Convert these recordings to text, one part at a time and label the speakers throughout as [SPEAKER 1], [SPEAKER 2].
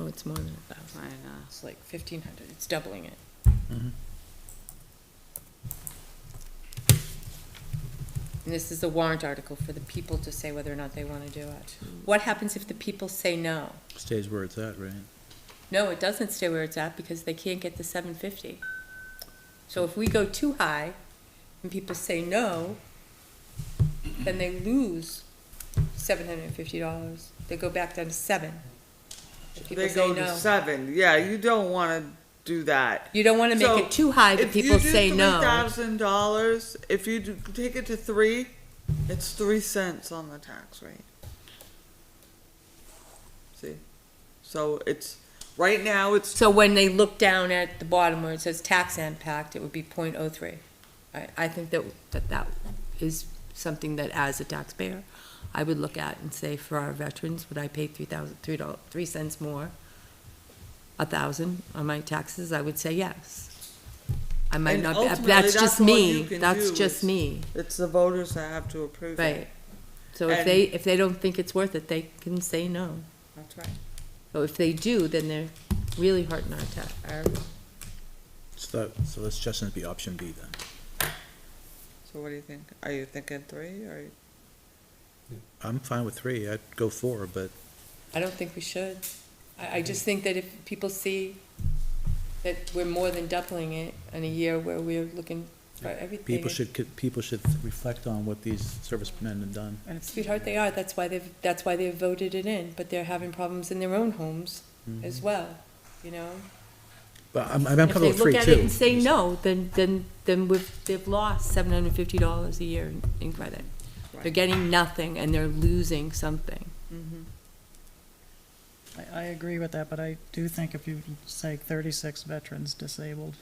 [SPEAKER 1] Oh, it's more than a thousand.
[SPEAKER 2] I know.
[SPEAKER 1] It's like fifteen hundred, it's doubling it.
[SPEAKER 3] Mm-hmm.
[SPEAKER 1] And this is a warrant article for the people to say whether or not they wanna do it. What happens if the people say no?
[SPEAKER 3] Stays where it's at, right?
[SPEAKER 1] No, it doesn't stay where it's at because they can't get the seven fifty. So if we go too high and people say no, then they lose seven hundred and fifty dollars. They go back down to seven. If people
[SPEAKER 2] They
[SPEAKER 1] say
[SPEAKER 2] go to
[SPEAKER 1] no.
[SPEAKER 2] seven. Yeah, you don't want to do that.
[SPEAKER 1] You don't wanna
[SPEAKER 2] So,
[SPEAKER 1] make it too high that
[SPEAKER 2] If you
[SPEAKER 1] people
[SPEAKER 2] do
[SPEAKER 1] say no.
[SPEAKER 2] Thousand dollars. If you do, take it to three, it's three cents on the tax rate. See, so it's right now. It's
[SPEAKER 1] So when they look down at the bottom where it says tax impact, it would be 0.03. I, I think that, that that is something that as a taxpayer, I would look at and say, for our veterans, would I pay three thousand, three dollars, three cents more? A thousand on my taxes, I would say yes. I might
[SPEAKER 2] And
[SPEAKER 1] not, be-
[SPEAKER 2] ultimately,
[SPEAKER 1] that's
[SPEAKER 2] that's
[SPEAKER 1] just
[SPEAKER 2] all
[SPEAKER 1] me,
[SPEAKER 2] you can
[SPEAKER 1] that's
[SPEAKER 2] do is-
[SPEAKER 1] just me,
[SPEAKER 2] it's the voters that have to approve it.
[SPEAKER 1] right? So if
[SPEAKER 2] And-
[SPEAKER 1] they, if they don't think it's worth it, they can say no.
[SPEAKER 2] That's right.
[SPEAKER 1] But if they do, then they're really hurting our tax, our
[SPEAKER 3] So, that- so let's just be option B then.
[SPEAKER 2] So what do you think? Are you thinking three or?
[SPEAKER 3] I'm fine with three, I'd go four, but
[SPEAKER 1] I don't think we should. I, I just think that if people see that we're more than doubling it in a year where we're looking for everything.
[SPEAKER 3] people should, c- people should reflect on what these servicemen have done.
[SPEAKER 1] Sweetheart, they are, that's why they've, that's why they've voted it in, but they're having problems in their own homes
[SPEAKER 3] Mm-hmm.
[SPEAKER 1] as well, you know?
[SPEAKER 3] But I'm, I'm comfortable with three too.
[SPEAKER 1] If they look at it and say no, then, then, then we've, they've lost seven hundred and fifty dollars a year in- in credit. They're
[SPEAKER 2] Right.
[SPEAKER 1] getting nothing and they're losing something.
[SPEAKER 4] I, I agree with that, but I do think if you say thirty-six veterans disabled,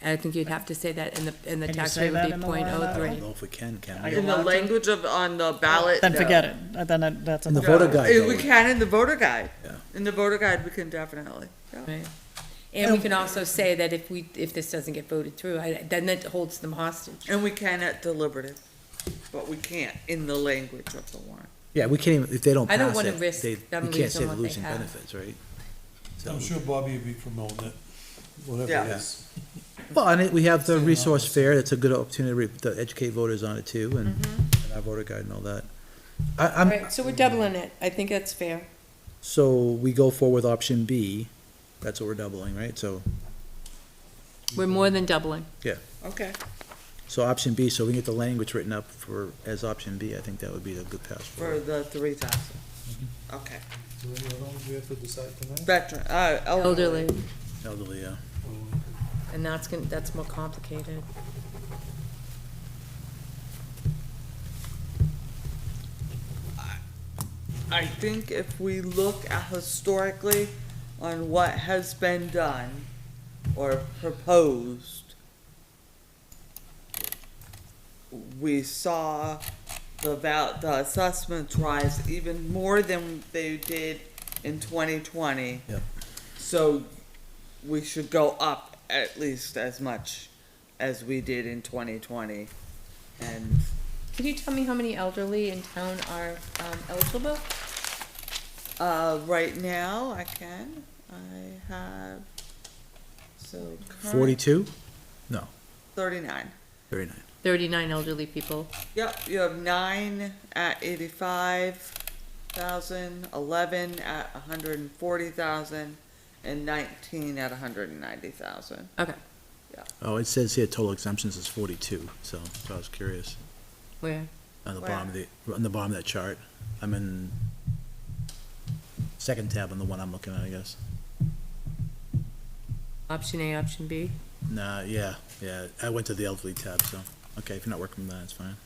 [SPEAKER 1] And I think you'd have to say that and the, and the
[SPEAKER 4] Can you
[SPEAKER 1] tax
[SPEAKER 4] say
[SPEAKER 1] rate
[SPEAKER 4] that
[SPEAKER 1] would
[SPEAKER 4] in
[SPEAKER 1] be
[SPEAKER 4] the warrant
[SPEAKER 1] point oh
[SPEAKER 3] I
[SPEAKER 1] three.
[SPEAKER 3] don't know if we can, can
[SPEAKER 4] I
[SPEAKER 3] we?
[SPEAKER 4] don't-
[SPEAKER 2] In the
[SPEAKER 4] allowed to?
[SPEAKER 2] language of, on the ballot.
[SPEAKER 4] then
[SPEAKER 2] no.
[SPEAKER 4] forget it. Uh, Then it- that's
[SPEAKER 3] And the
[SPEAKER 4] another-
[SPEAKER 3] voter guide,
[SPEAKER 2] Yeah,
[SPEAKER 3] though.
[SPEAKER 2] We can in the voter guide.
[SPEAKER 3] Yeah.
[SPEAKER 2] In the voter guide, we can definitely. yeah.
[SPEAKER 1] Right. And we can also say that if we, if this doesn't get voted through, I, then that holds them hostage.
[SPEAKER 2] And we can at deliberative, but we can't in the language of the warrant.
[SPEAKER 3] Yeah, we can't even, if they don't
[SPEAKER 1] I don't
[SPEAKER 3] pass
[SPEAKER 1] wanna
[SPEAKER 3] it,
[SPEAKER 1] risk
[SPEAKER 3] they, we
[SPEAKER 1] them
[SPEAKER 3] can't
[SPEAKER 1] losing
[SPEAKER 3] say they're
[SPEAKER 1] what they
[SPEAKER 3] losing
[SPEAKER 1] have.
[SPEAKER 3] benefits, right? So,
[SPEAKER 5] I'm sure Bobby would be promoting it, whatever
[SPEAKER 2] Yeah.
[SPEAKER 5] it is.
[SPEAKER 3] well, and it- we have the resource fair, that's a good opportunity to educate voters on it too, and and our voter guide and all that. I, I'm,
[SPEAKER 1] Mm-hmm. Right, so we're doubling it. I think that's fair.
[SPEAKER 3] So we go forward with option B, that's what we're doubling, right? So,
[SPEAKER 1] We're more than doubling.
[SPEAKER 2] Okay.
[SPEAKER 3] so option B, so we get the language written up for, as option B, I think that would be a good pass
[SPEAKER 2] For
[SPEAKER 3] forward.
[SPEAKER 2] the three thousand. Okay.
[SPEAKER 5] So any other ones we have to decide tonight?
[SPEAKER 2] Veteran, uh,
[SPEAKER 1] Elderly,
[SPEAKER 2] elderly.
[SPEAKER 3] Elderly, yeah.
[SPEAKER 1] and that's gonna, that's more complicated.
[SPEAKER 2] I think if we look at historically on what has been done or proposed, we saw the val, the assessments rise even more than they did in twenty twenty.
[SPEAKER 3] Yep.
[SPEAKER 2] So we should go up at least as much as we did in twenty twenty. And
[SPEAKER 1] Can you tell me how many elderly in town are um, eligible?
[SPEAKER 2] Uh, right now, I can. I have so current
[SPEAKER 3] Forty-two?
[SPEAKER 2] thirty-nine.
[SPEAKER 3] Very nice.
[SPEAKER 1] Thirty-nine elderly people.
[SPEAKER 2] Yep, you have nine at eighty-five thousand, eleven at a hundred and forty thousand, and nineteen at a hundred and ninety thousand.
[SPEAKER 1] Okay,
[SPEAKER 3] Oh, it says here total exemptions is forty-two, so so I was curious.
[SPEAKER 1] where?
[SPEAKER 3] On the bottom of the, on the bottom of that chart, I'm in second tab on the one I'm looking at, I guess.
[SPEAKER 1] Option A, option B?
[SPEAKER 3] Nah, yeah, yeah, I went to the elderly tab, so, okay, if you're not working with that, it's fine.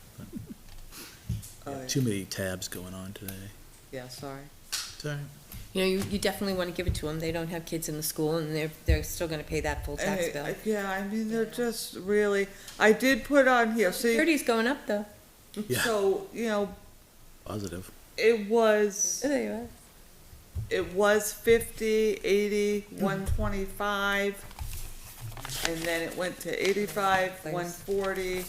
[SPEAKER 2] Oh, yeah.
[SPEAKER 3] Too many tabs going on today.
[SPEAKER 2] Yeah, sorry.
[SPEAKER 3] Sorry.
[SPEAKER 1] You know, you, you definitely wanna give it to them. They don't have kids in the school and they're, they're still gonna pay that full tax
[SPEAKER 2] And, uh,
[SPEAKER 1] bill.
[SPEAKER 2] Yeah, I mean, they're just really, I did put on here, see,
[SPEAKER 1] Thirty's going up though.
[SPEAKER 3] Yeah.
[SPEAKER 2] so, you know,
[SPEAKER 3] Positive.
[SPEAKER 2] it was.
[SPEAKER 1] There you are.
[SPEAKER 2] it was 50, 80, 125, and then it went to 85,
[SPEAKER 1] Thanks.
[SPEAKER 2] 140,